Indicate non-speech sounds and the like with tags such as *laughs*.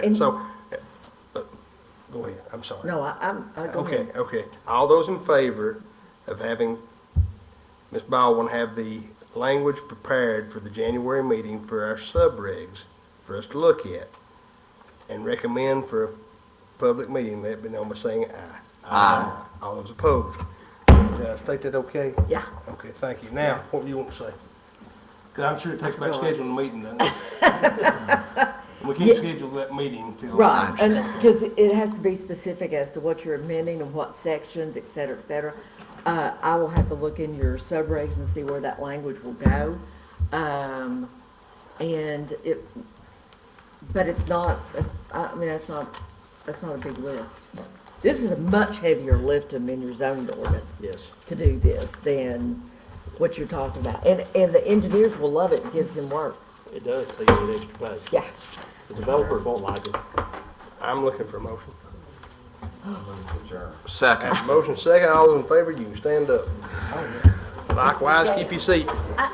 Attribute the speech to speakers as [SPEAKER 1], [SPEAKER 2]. [SPEAKER 1] And-
[SPEAKER 2] So, uh, go ahead, I'm sorry.
[SPEAKER 1] Mm-hmm. No, I, I'm, I go
[SPEAKER 2] Okay,
[SPEAKER 1] ahead.
[SPEAKER 2] okay. All those in favor of having Ms. Baldwin have the language prepared for the January meeting for our subregs for us to look at and recommend for a public meeting, let me know by saying aye. Aye. All those opposed? Did I state that okay?
[SPEAKER 1] Yeah.
[SPEAKER 2] Okay, thank you. Now, what do you want to say? Because I'm sure it takes about
[SPEAKER 1] forgot.
[SPEAKER 2] scheduling a meeting, doesn't it?
[SPEAKER 1] *laughs*
[SPEAKER 2] We can't schedule that meeting until.
[SPEAKER 1] Right, and, because it has to be specific as to what you're amending and what sections, et cetera, et cetera. Uh, I will have to look in your subregs and see where that language will go. Um, and it, but it's not, it's- I mean, that's not, that's not a big lift. This is a much heavier lift than in your zoning ordinance.
[SPEAKER 2] Yes.
[SPEAKER 1] To do this than what you're talking about. And, and the engineers will love it, it gives them work,
[SPEAKER 3] It does, they get an extra pay.
[SPEAKER 1] yeah.
[SPEAKER 3] The developers won't like it.
[SPEAKER 2] I'm looking for a motion.
[SPEAKER 4] Second.
[SPEAKER 2] Oh, Motion second, all those in favor, you can stand up. Likewise, keep your seat.